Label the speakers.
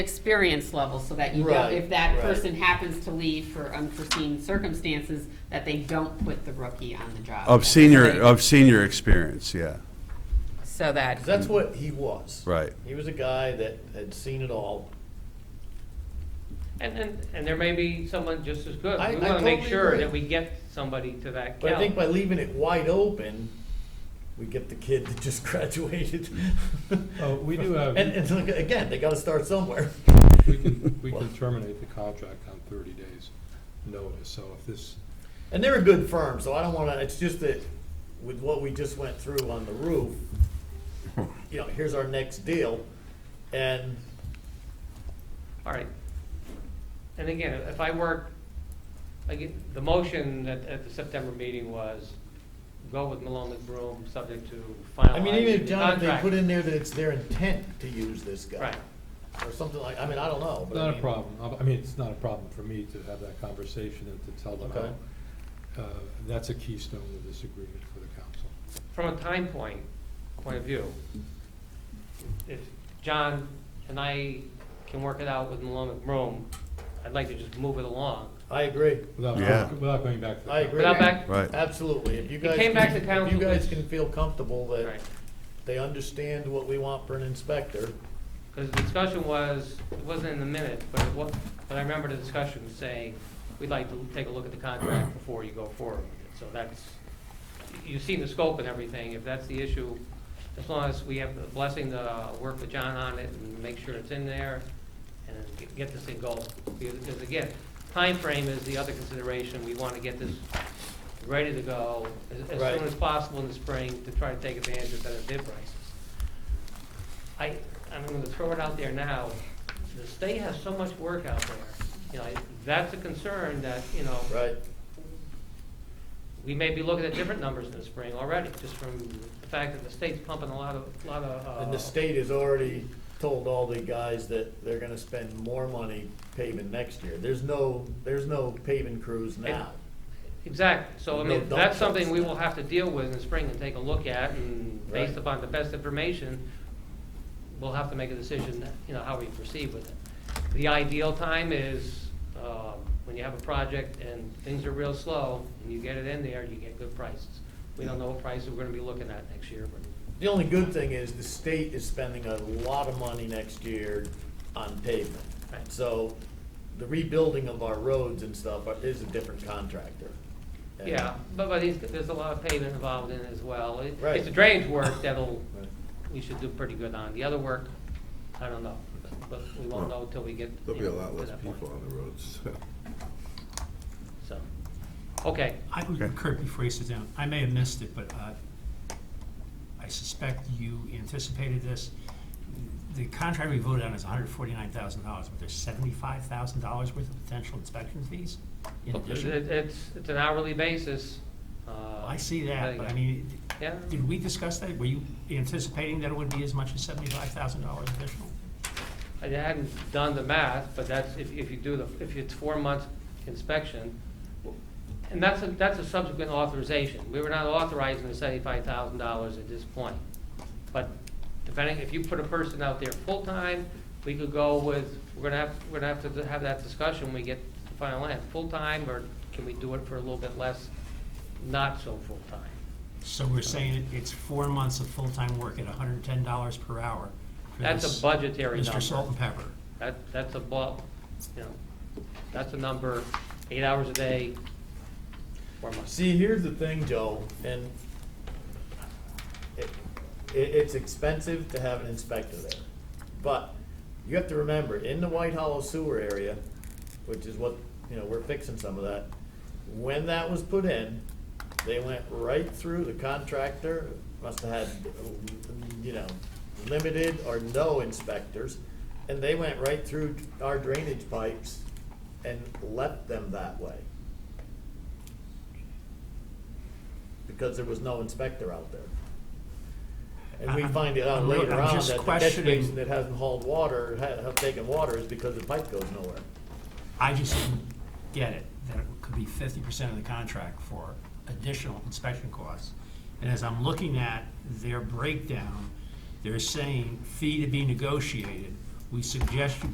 Speaker 1: experience level so that you know
Speaker 2: Right,
Speaker 1: if that
Speaker 2: right.
Speaker 1: person happens to leave for unforeseen circumstances, that they don't put the rookie on the job.
Speaker 3: Of senior, of senior experience, yeah,
Speaker 1: So that,
Speaker 2: 'Cause that's what he was.
Speaker 3: right.
Speaker 2: He was a guy that had seen it all.
Speaker 4: And, and, and there may be someone just as good.
Speaker 2: I-
Speaker 4: We
Speaker 2: I
Speaker 4: wanna make
Speaker 2: totally
Speaker 4: sure
Speaker 2: agree.
Speaker 4: that we get somebody to that
Speaker 2: But I think by
Speaker 4: caliber.
Speaker 2: leaving it wide open, we get the kid that just graduated.
Speaker 5: Oh, we do have-
Speaker 2: And, and look, again, they gotta start somewhere.
Speaker 5: We can, we can terminate the contract on thirty days notice, so if this,
Speaker 2: And they're a good firm, so I don't wanna, it's just that with what we just went through on the roof, you know, here's our next deal. And
Speaker 4: All right. And again, if I work, again, the motion at, at the September meeting was go with Malone McBroom, subject to
Speaker 2: I mean, even if
Speaker 4: finalizing the
Speaker 2: John, if they put
Speaker 4: contract.
Speaker 2: in there that it's their intent to use this guy
Speaker 4: Right.
Speaker 2: or something like, I mean, I don't know. but I
Speaker 5: not a
Speaker 2: mean-
Speaker 5: problem, I- I mean, it's not a problem for me to have that conversation and to tell them
Speaker 2: Okay.
Speaker 5: how. uh, That's a keystone of this agreement for the council.
Speaker 4: From a time point, point of view, if John and I can work it out with Malone McBroom, I'd like to just move it along.
Speaker 2: I agree.
Speaker 5: Without,
Speaker 3: Yeah.
Speaker 5: without going back to the.
Speaker 2: I agree.
Speaker 4: Without back,
Speaker 3: Right.
Speaker 2: Uh, Absolutely. If you guys.
Speaker 4: came back to
Speaker 2: if
Speaker 4: council
Speaker 2: You guys
Speaker 4: with-
Speaker 2: can feel comfortable that
Speaker 4: right.
Speaker 2: they understand what we want for an inspector.
Speaker 4: Because the discussion was, it wasn't in the minute, but it wa- but I remember the discussion saying, we'd like to take a look at the contract before you go forward with it. So that's, you've seen the scope and everything, if that's the issue, as long as we have the blessing to uh, work with John on it and make sure it's in there and get- get this thing going. Because again, time frame is the other consideration, we want to get this ready to go as- as
Speaker 2: Right.
Speaker 4: soon as possible in the spring to try to take advantage of better bid prices. I, I'm gonna throw it out there now, the state has so much work out there, you know, that's a concern that, you know,
Speaker 2: Right.
Speaker 4: we may be looking at different numbers in the spring already, just from the fact that the state's pumping a lot of, lot of, uh.
Speaker 2: And the state has already told all the guys that they're gonna spend more money paving next year. There's no, there's no paving crews now.
Speaker 4: Exactly, so
Speaker 2: No
Speaker 4: I mean,
Speaker 2: dump
Speaker 4: that's something
Speaker 2: trucks.
Speaker 4: we will have to deal with in the spring and take a look at, and based
Speaker 2: Right.
Speaker 4: upon the best information, we'll have to make a decision, you know, how we proceed with it. The ideal time is, um, when you have a project and things are real slow, and you get it in there, you get good prices. We don't know what prices we're gonna be looking at next year, but,
Speaker 2: The only good thing is the state is spending a lot of money next year on pavement.
Speaker 4: Right.
Speaker 2: So the rebuilding of our roads and stuff is a different contractor. And-
Speaker 4: yeah, but, but it's- there's a lot of pavement involved in it as well. It-
Speaker 2: Right.
Speaker 4: It's the drainage work that'll
Speaker 2: Right.
Speaker 4: we should do pretty good on. The other work, I don't know, but- but we won't know until we get.
Speaker 6: There'll be
Speaker 4: you
Speaker 6: a
Speaker 4: know,
Speaker 6: lot
Speaker 4: to
Speaker 6: less
Speaker 4: that point.
Speaker 6: people on the roads.
Speaker 4: So, okay,
Speaker 7: I,
Speaker 3: Okay.
Speaker 7: Kurt, before you sit down, I may have missed it, but uh, I suspect you anticipated this. The contract we voted on is hundred forty-nine thousand dollars, but there's seventy-five thousand dollars worth of potential inspection fees in
Speaker 4: It-
Speaker 7: addition.
Speaker 4: it- it's, it's an hourly basis. uh,
Speaker 7: I see that, but I mean,
Speaker 4: Yeah,
Speaker 7: did we discuss that? Were you anticipating that it would be as much as seventy-five thousand dollars additional?
Speaker 4: I hadn't done the math, but that's, if, if you do the, if it's four months inspection, and that's, a that's a subsequent authorization. We were not authorizing the seventy-five thousand dollars at this point. But depending, if you put a person out there full-time, we could go with, we're gonna have, we're gonna have to have that discussion when we get to the final end. Full-time, or can we do it for a little bit less, not so full-time?
Speaker 7: So we're saying it- it's four months of full-time work at hundred and ten dollars per hour for
Speaker 4: That's
Speaker 7: this
Speaker 4: a budgetary number.
Speaker 7: Mr. Salt and Pepper.
Speaker 4: That, that's a bu, you know, that's a number, eight hours a day, four months.
Speaker 2: See, here's the thing, Joe, and it, it, it's expensive to have an inspector there. But you have to remember, in the White Hollow sewer area, which is what, you know, we're fixing some of that, when that was put in, they went right through the contractor, must have had, you know, limited or no inspectors, and they went right through our drainage pipes and left them that way. because there was no inspector out there. And we
Speaker 7: I'm-
Speaker 2: find it out
Speaker 7: I'm-
Speaker 2: later
Speaker 7: I'm
Speaker 2: on
Speaker 7: just
Speaker 2: that the catch
Speaker 7: questioning-
Speaker 2: basin that hasn't hauled water, ha- have taken water is because the pipe goes nowhere.
Speaker 7: I just didn't get it, that it could be fifty percent of the contract for additional inspection costs. And as I'm looking at their breakdown, they're saying fee to be negotiated, we suggest you